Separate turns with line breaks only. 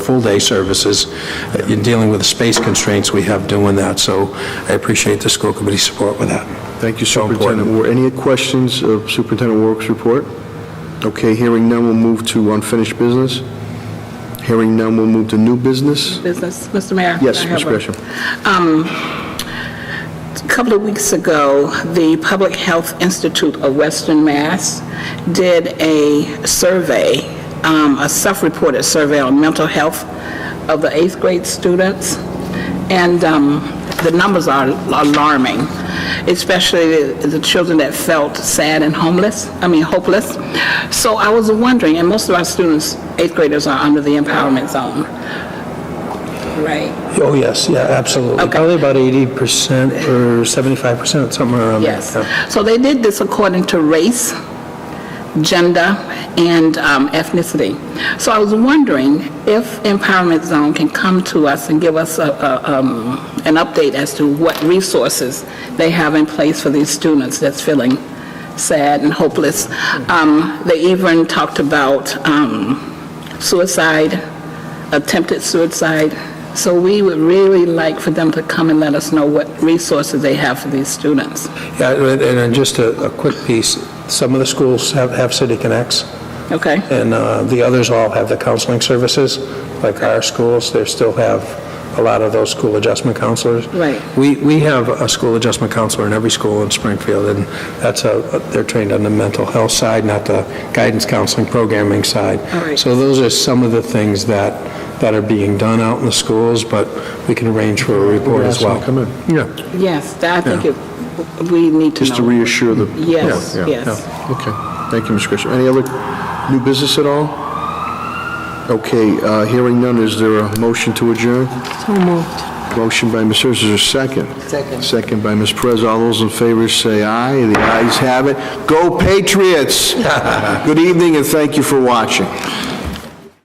full-day services, uh, you're dealing with the space constraints we have doing that, so I appreciate the school committee's support with that.
Thank you,
So important.
Superintendent Ward. Any questions of Superintendent Warwick's report? Okay, hearing none, we'll move to unfinished business. Hearing none, we'll move to new business.
business. Mr. Mayor?
Yes,
I have
Ms.
a-
Gresham.
A couple of weeks ago, the Public Health Institute of Western Mass did a survey, um, a self-reported survey on mental health of the eighth grade students, and um, the numbers are alarming, especially the the children that felt sad and homeless, I mean hopeless. So I was wondering, and most of our students, eighth graders, are under the empowerment zone, right?
Oh, yes, yeah, absolutely.
Okay.
Probably about 80% or 75%, somewhere around there.
Yes. So they did this according to race, gender, and um, ethnicity. So I was wondering if Empowerment Zone can come to us and give us a- a, um, an update as to what resources they have in place for these students that's feeling sad and hopeless. Um, They even talked about um, suicide, attempted suicide. So we would really like for them to come and let us know what resources they have for these students.
Yeah, and and then just a a quick piece, some of the schools have have City Connects,
Okay?
and uh, the others all have the counseling services, like our schools, they still have a lot of those school adjustment counselors.
Right.
We we have a school adjustment counselor in every school in Springfield, and that's a, they're trained on the mental health side, not the guidance counseling programming side.
All right.
So those are some of the things that, that are being done out in the schools, but we can arrange for a report as well.
Come in,
Yeah,
Yes, that- I think it- we need to know.
just to reassure the...
Yes,
Yeah, yeah,
yes.
yeah. Okay, thank you, Ms. Gresham. Any other new business at all? Okay, uh, hearing none, is there a motion to adjourn?
So moved.
Motion by Ms. Hurst, is there a second? Second. Second by Ms. Perez. All those in favor say aye. The ayes have it. Go Patriots! Good evening, and thank you for watching.